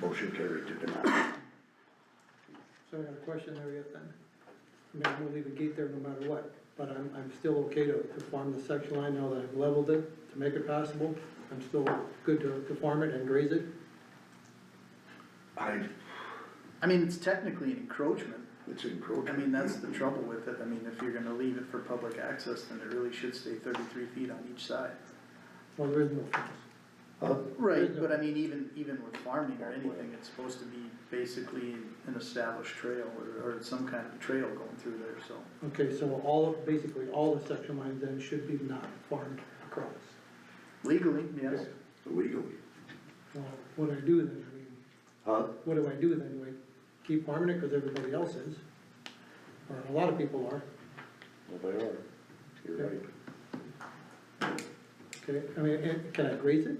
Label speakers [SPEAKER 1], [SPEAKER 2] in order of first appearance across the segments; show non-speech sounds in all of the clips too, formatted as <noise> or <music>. [SPEAKER 1] Motion carried to deny.
[SPEAKER 2] So I got a question there yet then. I mean, I'm gonna leave a gate there no matter what, but I'm, I'm still okay to, to farm the section line now that I've leveled it, to make it passable. I'm still good to, to farm it and graze it.
[SPEAKER 1] I,
[SPEAKER 3] I mean, it's technically an encroachment,
[SPEAKER 1] it's
[SPEAKER 3] I
[SPEAKER 1] encroaching.
[SPEAKER 3] mean, that's the trouble with it, I mean, if you're gonna leave it for public access, then it really should stay thirty-three feet on each side.
[SPEAKER 2] Well, there is no fence.
[SPEAKER 1] Huh?
[SPEAKER 3] Right, but I mean, even, even with farming or anything, it's supposed to be basically an established trail, or, or some kind of trail going through there, so.
[SPEAKER 2] Okay, so all, basically all the section lines then should be not farmed across.
[SPEAKER 3] Legally, yes,
[SPEAKER 1] Legally.
[SPEAKER 2] Well, what do I do then? I mean,
[SPEAKER 1] Huh?
[SPEAKER 2] what do I do then? Do I keep farming it because everybody else is? Or a lot of people are,
[SPEAKER 1] Well, they are. You're right.
[SPEAKER 2] okay? I mean, and can I graze it?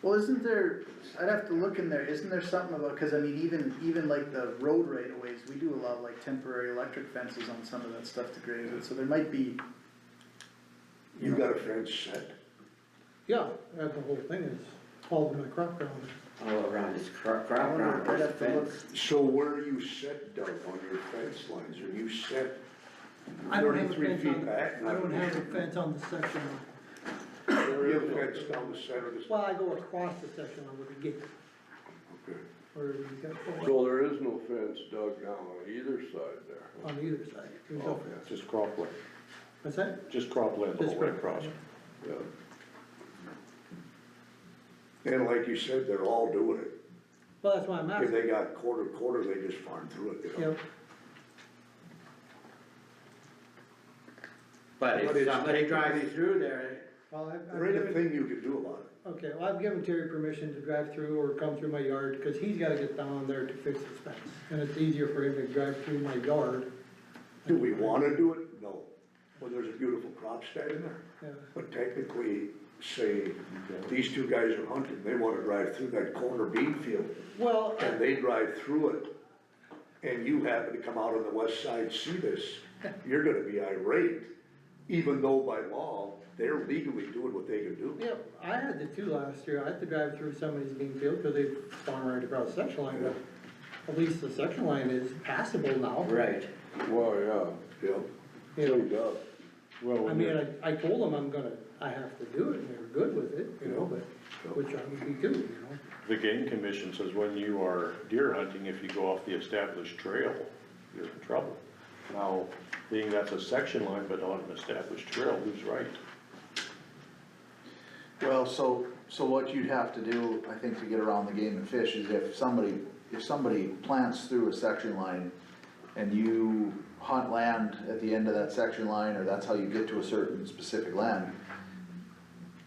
[SPEAKER 3] well, isn't there, I'd have to look in there, isn't there something about, cause I mean, even, even like the road right of ways, we do allow like temporary electric fences on some of that stuff to graze it, so there might be.
[SPEAKER 1] You
[SPEAKER 3] know,
[SPEAKER 1] got a fence set.
[SPEAKER 2] Yeah, that's the whole thing is, all of my crop ground.
[SPEAKER 4] all around his cro- crop
[SPEAKER 3] I wonder,
[SPEAKER 4] ground
[SPEAKER 3] I'd
[SPEAKER 4] is
[SPEAKER 3] have to look.
[SPEAKER 4] fenced.
[SPEAKER 1] So where are you set, Doug, on your fence lines? Are you set
[SPEAKER 2] I don't have a
[SPEAKER 1] thirty-three
[SPEAKER 2] fence on-
[SPEAKER 1] feet back?
[SPEAKER 2] I don't have a fence on the section line.
[SPEAKER 1] You have a fence down the center of this?
[SPEAKER 2] Well, I go across the section line with a gate,
[SPEAKER 1] Okay.
[SPEAKER 2] or you got,
[SPEAKER 5] So there is no fence dug down on either side there.
[SPEAKER 2] on either side. There's
[SPEAKER 1] Oh,
[SPEAKER 2] no fence.
[SPEAKER 6] Just cropland,
[SPEAKER 2] What's that?
[SPEAKER 6] just cropland the
[SPEAKER 2] Just
[SPEAKER 6] whole way
[SPEAKER 2] crop,
[SPEAKER 6] across.
[SPEAKER 2] yeah.
[SPEAKER 5] Yeah.
[SPEAKER 1] And like you said, they're all doing it.
[SPEAKER 2] Well, that's why I'm
[SPEAKER 1] If
[SPEAKER 2] asking,
[SPEAKER 1] they got quarter, quarter, they just farm through it, you
[SPEAKER 2] you
[SPEAKER 1] know?
[SPEAKER 2] know,
[SPEAKER 4] But
[SPEAKER 1] But it's-
[SPEAKER 4] if somebody drives through there, eh?
[SPEAKER 2] well, I've,
[SPEAKER 1] There ain't a
[SPEAKER 2] I've given,
[SPEAKER 1] thing you can do about it.
[SPEAKER 2] okay, well, I've given Terry permission to drive through or come through my yard, cause he's gotta get down there to fix his fence. And it's easier for him to drive through my yard,
[SPEAKER 1] Do we wanna do it? No. Well, there's a beautiful crop standing there.
[SPEAKER 2] yeah,
[SPEAKER 1] But technically, say, these two guys are hunting, they wanna drive through that corner bean field,
[SPEAKER 2] well,
[SPEAKER 1] and they drive through it, and you happen to come out on the west side, see this, you're gonna be irate, even though by law, they're legally doing what they can do.
[SPEAKER 2] yeah, I had to too last year, I had to drive through somebody's bean field, cause they farm right across the section line, but at least the section line is passable now.
[SPEAKER 4] right,
[SPEAKER 5] Well,
[SPEAKER 1] Yeah,
[SPEAKER 5] yeah,
[SPEAKER 2] You know,
[SPEAKER 5] cleaned up.
[SPEAKER 6] Well,
[SPEAKER 2] I
[SPEAKER 6] when
[SPEAKER 2] mean,
[SPEAKER 6] you're-
[SPEAKER 2] I, I told them I'm gonna, I have to do it, and they were good with it, you know,
[SPEAKER 1] Yeah.
[SPEAKER 2] but, which I would be good, you know?
[SPEAKER 6] the game commission says when you are deer hunting, if you go off the established trail, you're in trouble. Now, being that's a section line but on an established trail, who's right?
[SPEAKER 7] Well, so, so what you'd have to do, I think, to get around the game and fish is if somebody, if somebody plants through a section line and you hunt land at the end of that section line, or that's how you get to a certain specific land,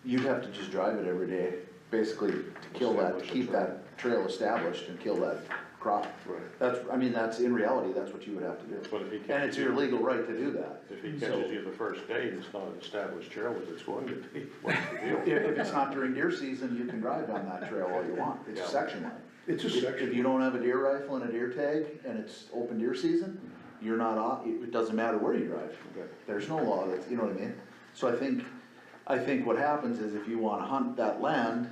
[SPEAKER 7] you'd have to just drive it every day, basically to kill that, to keep that trail established and kill that crop.
[SPEAKER 6] Right.
[SPEAKER 7] That's, I mean, that's, in reality, that's what you would have to
[SPEAKER 6] But if
[SPEAKER 7] do.
[SPEAKER 6] he
[SPEAKER 7] And it's your legal right to do that.
[SPEAKER 6] If he
[SPEAKER 7] So-
[SPEAKER 6] catches you the first day and it's not an established trail, which it's going to be, <laughs> what's the deal?
[SPEAKER 7] If, if it's not during deer season, you can drive down that trail all you want, it's a section line.
[SPEAKER 1] it's a
[SPEAKER 7] If if you
[SPEAKER 1] section,
[SPEAKER 7] don't have a deer rifle and a deer tag, and it's open deer season, you're not on, it, it doesn't matter where you drive.
[SPEAKER 6] Okay.
[SPEAKER 7] There's no law that's, you know what I mean? So I think, I think what happens is if you wanna hunt that land,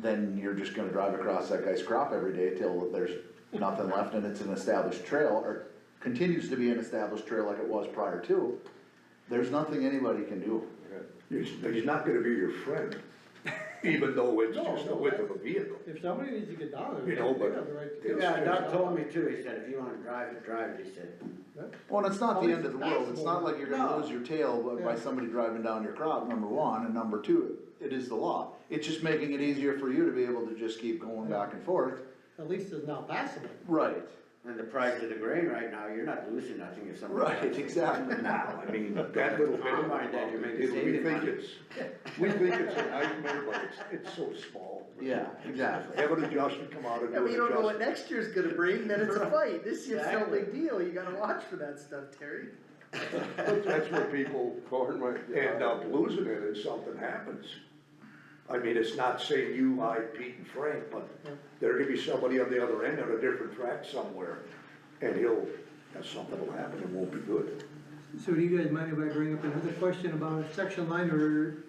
[SPEAKER 7] then you're just gonna drive across that guy's crop every day till there's nothing left and it's an established trail, or continues to be an established trail like it was prior to. There's nothing anybody can do.
[SPEAKER 1] he's, he's not gonna be your friend, even though it's
[SPEAKER 2] No,
[SPEAKER 1] just the
[SPEAKER 2] no,
[SPEAKER 1] width
[SPEAKER 2] I-
[SPEAKER 1] of a vehicle.
[SPEAKER 2] If somebody needs to get down
[SPEAKER 1] You
[SPEAKER 2] there,
[SPEAKER 1] know,
[SPEAKER 2] they
[SPEAKER 1] but
[SPEAKER 2] have the right to
[SPEAKER 1] it's-
[SPEAKER 2] do
[SPEAKER 4] yeah,
[SPEAKER 2] it.
[SPEAKER 4] Doug told me too, he said, if you wanna drive it, drive it, he said.
[SPEAKER 7] Well, and it's not
[SPEAKER 2] At
[SPEAKER 7] the
[SPEAKER 2] least
[SPEAKER 7] end of the
[SPEAKER 2] it's
[SPEAKER 7] world, it's not
[SPEAKER 2] passable.
[SPEAKER 7] like you're gonna
[SPEAKER 4] No.
[SPEAKER 7] lose your tail by-
[SPEAKER 2] Yeah.
[SPEAKER 7] by somebody driving down your crop, number one, and number two, it is the law. It's just making it easier for you to be able to just keep going back and forth.
[SPEAKER 2] At least it's not passable.
[SPEAKER 7] Right.
[SPEAKER 4] And the price of the grain right now, you're not losing nothing if somebody.
[SPEAKER 7] Right, <laughs> exactly.
[SPEAKER 1] Now, I mean, that little bit of
[SPEAKER 4] Combine that, you make
[SPEAKER 1] it, we
[SPEAKER 4] saving
[SPEAKER 1] think
[SPEAKER 4] money.
[SPEAKER 1] it's, we think it's a nightmare, but it's, it's so small.
[SPEAKER 7] Yeah, exactly.
[SPEAKER 1] Have an adjustment come out and
[SPEAKER 3] And
[SPEAKER 1] do
[SPEAKER 3] we
[SPEAKER 1] an
[SPEAKER 3] don't know what
[SPEAKER 1] adjustment.
[SPEAKER 3] next year's gonna bring, then
[SPEAKER 1] <laughs>
[SPEAKER 3] it's a fight, this year's no
[SPEAKER 4] Exactly.
[SPEAKER 3] big deal, you gotta watch for that stuff, Terry.
[SPEAKER 1] That's where people
[SPEAKER 5] Corn might be
[SPEAKER 1] end up losing it if something happens. I mean, it's not saying you, I, Pete and Frank, but there could be somebody on the other end on a different track somewhere. And he'll, something will happen, it won't be good.
[SPEAKER 2] So do you guys mind if I bring up another question about a section line or